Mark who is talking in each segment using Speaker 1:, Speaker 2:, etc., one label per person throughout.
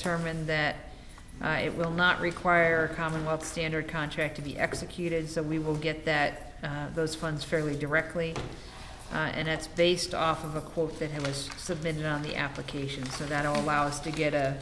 Speaker 1: determined that uh, it will not require a Commonwealth standard contract to be executed, so we will get that, uh, those funds fairly directly. Uh, And that's based off of a quote that was submitted on the application, so that'll allow us to get a,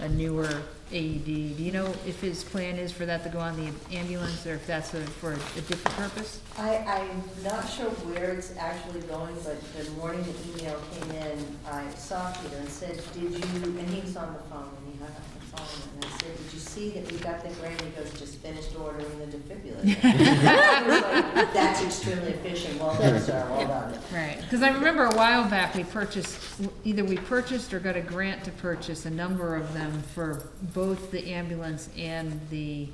Speaker 1: a newer AED. Do you know if his plan is for that to go on the ambulance, or if that's a- for a different purpose?
Speaker 2: I, I'm not sure where it's actually going, but the morning the email came in, I saw Peter and said, did you, and he was on the phone, and he hung up the phone, and I said, did you see that we got the grant? He goes, just finished ordering the defibrillator. I was like, That's extremely efficient, well done, sir, well done.
Speaker 1: Right, because I remember a while back, we purchased, either we purchased or got a grant to purchase a number of them for both the ambulance and the,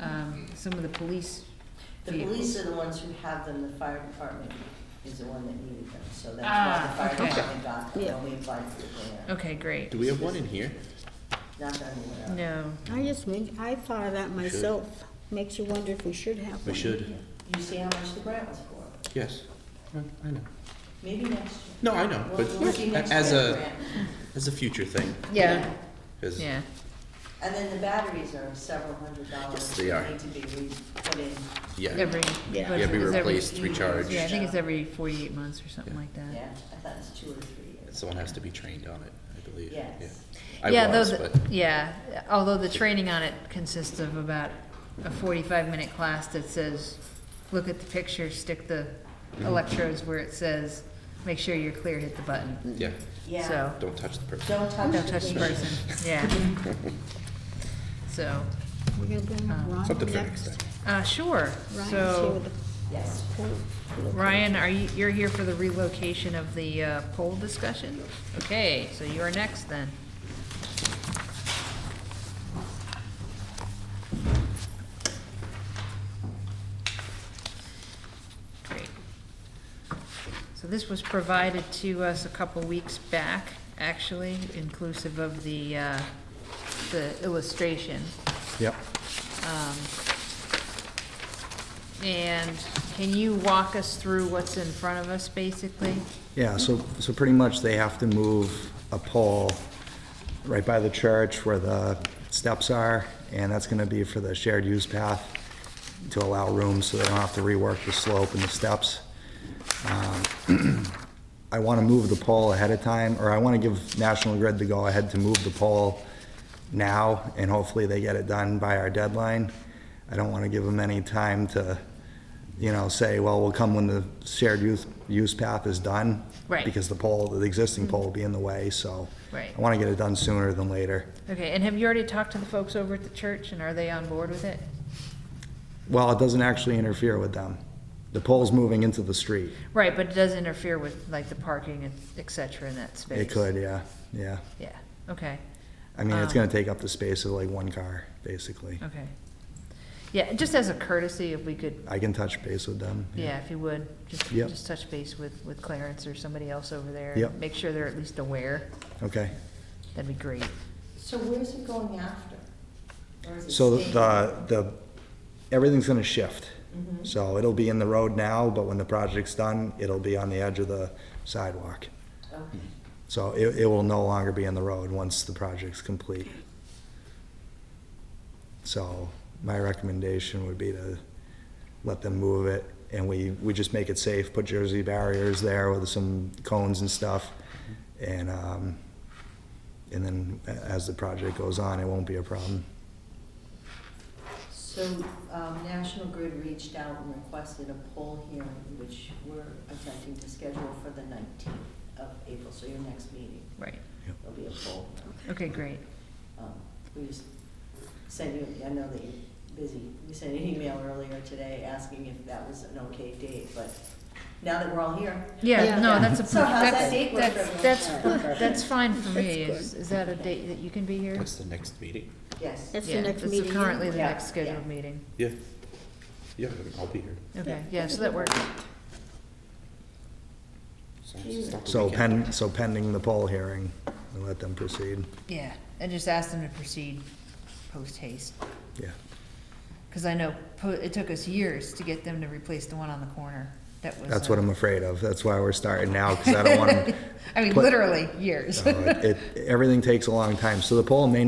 Speaker 1: um, some of the police
Speaker 2: The
Speaker 1: vehicles.
Speaker 2: police are the ones who have them, the fire department is the one that needed them, so that's why the
Speaker 1: Ah, okay.
Speaker 2: fire department got them,
Speaker 3: Yeah.
Speaker 2: and we applied for the grant,
Speaker 1: Okay, great.
Speaker 4: Do we have one in here?
Speaker 2: not that anywhere else.
Speaker 1: No,
Speaker 3: I just, make- I thought of that myself. Makes you wonder if we should have
Speaker 4: We
Speaker 3: one.
Speaker 4: should,
Speaker 2: You see how much the grant was for,
Speaker 4: yes. I know.
Speaker 2: maybe next year.
Speaker 4: No, I know, but
Speaker 2: We'll- we'll see next
Speaker 4: as
Speaker 2: year's
Speaker 4: a,
Speaker 2: grant.
Speaker 4: as a future thing,
Speaker 1: yeah,
Speaker 4: 'cause
Speaker 1: yeah,
Speaker 2: And then the batteries are several hundred dollars.
Speaker 4: Yes, they are.
Speaker 2: Need to be re- put in,
Speaker 4: yeah,
Speaker 1: every.
Speaker 3: Yeah.
Speaker 1: but
Speaker 4: yeah, be
Speaker 1: it's every-
Speaker 4: replaced,
Speaker 2: few years.
Speaker 4: recharged,
Speaker 1: Yeah, I think it's every forty-eight months or something
Speaker 4: Yeah.
Speaker 1: like that.
Speaker 2: yeah, I thought it's two or three years.
Speaker 4: someone has to be trained on it, I believe, yeah.
Speaker 2: Yes.
Speaker 4: I
Speaker 1: yeah,
Speaker 4: was,
Speaker 1: those,
Speaker 4: but,
Speaker 1: yeah. Although the training on it consists of about a forty-five minute class that says, look at the picture, stick the electrodes where it says, make sure you're clear, hit the button.
Speaker 4: yeah,
Speaker 2: Yeah,
Speaker 1: So
Speaker 4: don't touch the person.
Speaker 2: don't touch the
Speaker 1: don't touch the person. Yeah. So,
Speaker 3: We're gonna bring
Speaker 1: Um,
Speaker 3: Ron
Speaker 4: Something for next
Speaker 3: next.
Speaker 4: time.
Speaker 1: uh, sure.
Speaker 3: Ryan's here
Speaker 1: So,
Speaker 3: with
Speaker 2: Yes,
Speaker 3: the-
Speaker 1: Ryan, are you, you're here for the relocation of the uh, poll discussion? Okay, so you are next then. Great. So this was provided to us a couple weeks back, actually, inclusive of the, uh, the illustration.
Speaker 5: Yep.
Speaker 1: Um, And can you walk us through what's in front of us, basically?
Speaker 5: Yeah, so, so pretty much they have to move a pole right by the church where the steps are, and that's gonna be for the shared use path to allow room so they don't have to rework the slope and the steps. Um, I wanna move the pole ahead of time, or I wanna give National Grid the go-ahead to move the pole now, and hopefully they get it done by our deadline. I don't wanna give them any time to, you know, say, well, we'll come when the shared use, use path is done.
Speaker 1: Right.
Speaker 5: Because the pole, the existing pole will be in the way, so.
Speaker 1: Right.
Speaker 5: I wanna get it done sooner than later.
Speaker 1: Okay, and have you already talked to the folks over at the church, and are they on board with it?
Speaker 5: Well, it doesn't actually interfere with them. The pole's moving into the street.
Speaker 1: Right, but it does interfere with, like, the parking and et cetera in that space?
Speaker 5: It could, yeah, yeah.
Speaker 1: Yeah, okay,
Speaker 5: I mean, it's
Speaker 1: Um,
Speaker 5: gonna take up the space of like one car, basically.
Speaker 1: okay. Yeah, just as a courtesy, if we could,
Speaker 5: I can touch base with them.
Speaker 1: yeah, if you would, just,
Speaker 5: Yep.
Speaker 1: just touch base with, with Clarence or somebody else over there. and
Speaker 5: Yep.
Speaker 1: Make sure they're at least aware,
Speaker 5: Okay.
Speaker 1: that'd be great.
Speaker 2: so where's it going after? Or is it
Speaker 5: So
Speaker 2: staying?
Speaker 5: the, the, everything's gonna shift.
Speaker 2: Mhm.
Speaker 5: So it'll be in the road now, but when the project's done, it'll be on the edge of the sidewalk.
Speaker 2: Okay.
Speaker 5: So it, it will no longer be on the road once the project's complete. So my recommendation would be to let them move it and we, we just make it safe, put Jersey barriers there with some cones and stuff. And, um, and then a- as the project goes on, it won't be a problem.
Speaker 2: So, um, National Grid reached out and requested a poll hearing, which we're attempting to schedule for the nineteenth of April, so your next meeting,
Speaker 1: Right,
Speaker 2: there'll be a poll.
Speaker 1: okay, great.
Speaker 2: Um, We just sent you, I know that you're busy, we sent an email earlier today asking if that was an okay date, but now that we're all here.
Speaker 1: Yeah,
Speaker 3: Yeah.
Speaker 1: no, that's a,
Speaker 2: So how's
Speaker 1: that's,
Speaker 2: that date work
Speaker 1: that's,
Speaker 2: for
Speaker 1: that's,
Speaker 2: everyone?
Speaker 1: that's fine for me,
Speaker 3: That's
Speaker 1: is, is that a date that you can be here?
Speaker 4: What's the next meeting?
Speaker 2: Yes.
Speaker 3: That's
Speaker 1: Yeah,
Speaker 3: the next
Speaker 1: that's
Speaker 3: meeting.
Speaker 1: Currently the
Speaker 2: Yeah,
Speaker 1: next scheduled
Speaker 2: yeah.
Speaker 1: meeting,
Speaker 4: Yeah, yeah, I'll be here.
Speaker 1: okay,
Speaker 3: Yeah.
Speaker 1: yeah, so that works,
Speaker 4: So it's not the
Speaker 5: So
Speaker 4: weekend.
Speaker 5: pen, so pending the poll hearing, and let them proceed,
Speaker 1: yeah, and just ask them to proceed post haste.
Speaker 5: yeah.
Speaker 1: Cause I know, po- it took us years to get them to replace the one on the corner, that was.
Speaker 5: That's
Speaker 1: uh,
Speaker 5: what I'm afraid of, that's why we're starting now, because I don't want them.
Speaker 1: I mean,
Speaker 5: put-
Speaker 1: literally, years.
Speaker 5: No, it- it- Everything takes a long time, so the poll may